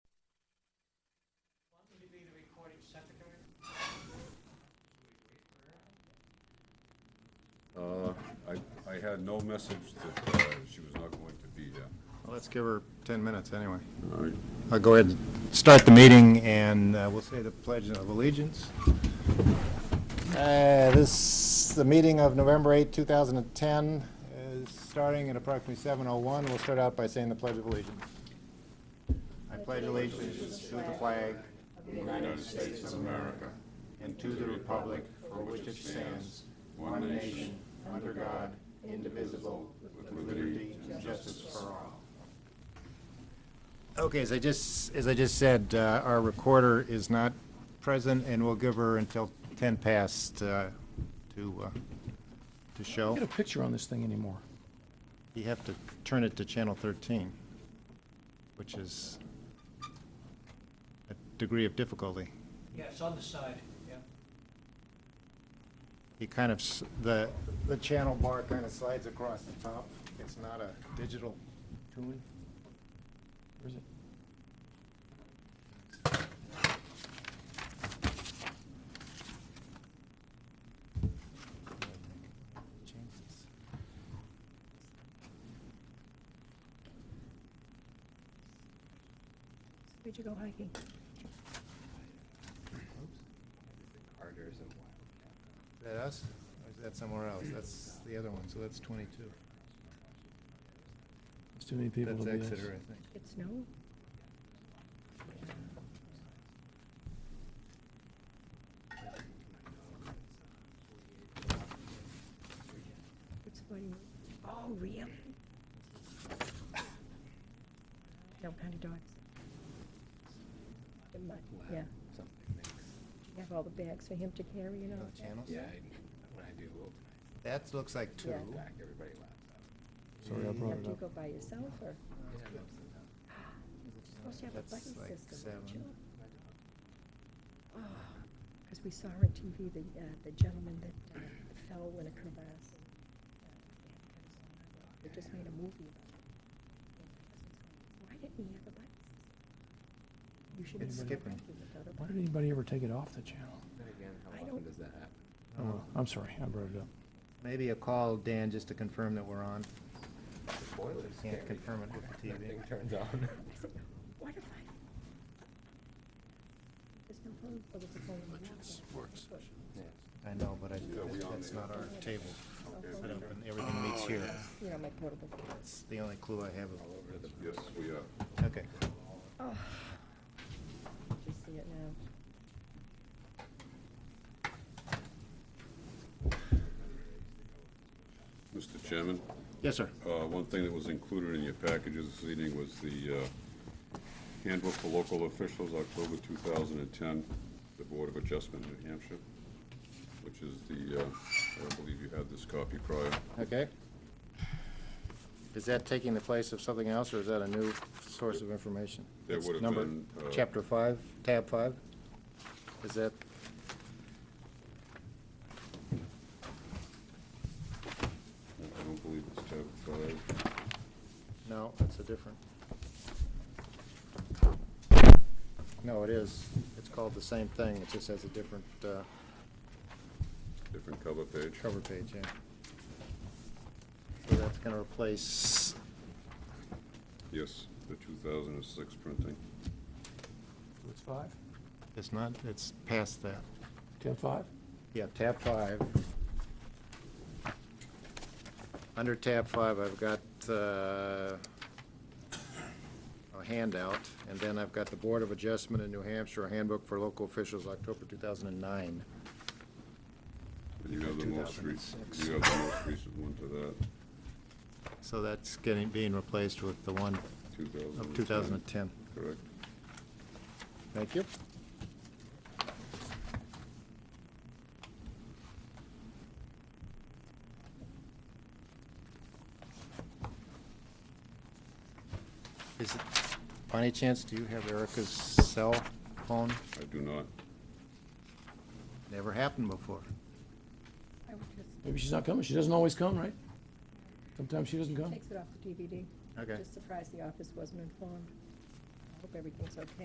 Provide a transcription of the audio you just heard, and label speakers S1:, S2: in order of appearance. S1: I had no message that uh, she was not going to be here.
S2: Well, Let's give her 10 minutes anyway.
S1: All right.
S2: I'll go ahead and start the meeting, and uh, we'll say the Pledge of Allegiance. Uh, This, the meeting of November 8, 2010, is starting at approximately 7:01. We'll start out by saying the Pledge of Allegiance. I pledge allegiance to the flag of the United States of America and to the republic for which it stands, one nation, under God, indivisible, with liberty and justice for all. Okay, as I just, as I just said, uh, our recorder is not present, and we'll give her until 10 past uh, to, uh, to show.
S3: Get a picture on this thing anymore.
S2: You have to turn it to channel 13, which is a degree of difficulty.
S4: Yeah, it's on the side, yeah.
S2: He kind of, s- the, the channel bar kind of slides across the top. It's not a digital tune.
S3: Where is it?
S5: Where'd you go hiking?
S2: Is that us? Or is that somewhere else? That's the other one, so that's 22.
S3: There's too many people to
S2: That's
S3: do this.
S2: Exeter, I think.
S5: It's snow? It's funny. Oh, really? No kind of dogs. The mud, yeah. You have all the bags for him to carry and all
S2: Oh,
S5: that.
S2: The channels?
S6: Yeah, I- when I do overnight,
S2: That looks like two.
S5: Yeah.
S6: back, everybody laughs out.
S3: Sorry, I brought
S5: Now,
S3: it
S5: do you
S3: up.
S5: go by yourself or? You're supposed to have a
S2: That's
S5: buddy
S2: like
S5: system, don't you?
S2: seven.
S5: Because we saw on TV, the, uh, the gentleman that uh, fell in a crevasse. and, uh, They just made a movie about it. Why didn't he have a buddy system? You should
S2: It's
S5: have a
S2: skipping.
S5: buddy without a
S3: Why
S5: buddy.
S3: did anybody ever take it off the channel?
S6: Then again, how
S5: I
S6: often
S5: don't-
S6: does that happen?
S3: Oh, well, I'm sorry, I brought it up.
S2: Uh, Maybe a call, Dan, just to confirm that we're on.
S6: The boiler's
S2: Can't
S6: scary.
S2: confirm it with the
S6: That
S2: TV.
S6: thing turns on.
S5: I said, what if I? There's no phone, oh, there's a phone in the laptop.
S6: Yeah.
S2: I know, but I,
S1: we on
S2: that's
S1: the-
S2: not our table. I don't- and
S1: Oh,
S2: Everything meets here.
S5: You know, my portable. phone.
S2: That's the only clue I have. of-
S1: Yes, we are.
S2: Okay.
S5: Oh, you see it now.
S1: Mr. Chairman,
S2: Yes, sir.
S1: uh, one thing that was included in your packages this evening was the uh, handbook for local officials, October 2010, the Board of Adjustment in New Hampshire, which is the, uh, I believe you had this copy prior.
S2: Okay. Is that taking the place of something else, or is that a new source of information?
S1: That
S2: It's
S1: would have
S2: number-
S1: been, uh,
S2: Chapter five, tab five? Is that?
S1: I don't believe it's tab five.
S2: No, that's a different. No, it is. It's called the same thing. It just has a different uh,
S1: Different cover page.
S2: cover page, yeah. So that's going to replace,
S1: Yes, the 2006 printing.
S3: It's five?
S2: it's not, it's past that.
S3: Ten five?
S2: Yeah, tab five. Under tab five, I've got uh, a handout, and then I've got the Board of Adjustment in New Hampshire, a handbook for local officials, October 2009.
S1: And you have the most recent, you have the most recent one to that,
S2: So that's getting, being replaced with the one
S1: 2010.
S2: of 2010.
S1: Correct.
S2: Thank you. Is it, by any chance, do you have Erica's cell phone?
S1: I do not.
S2: Never happened before.
S5: I would just
S3: Maybe she's not coming. She doesn't always come, right? Sometimes she doesn't come.
S5: takes it off the DVD.
S2: Okay.
S5: Just surprised the office wasn't informed. I hope everything's okay.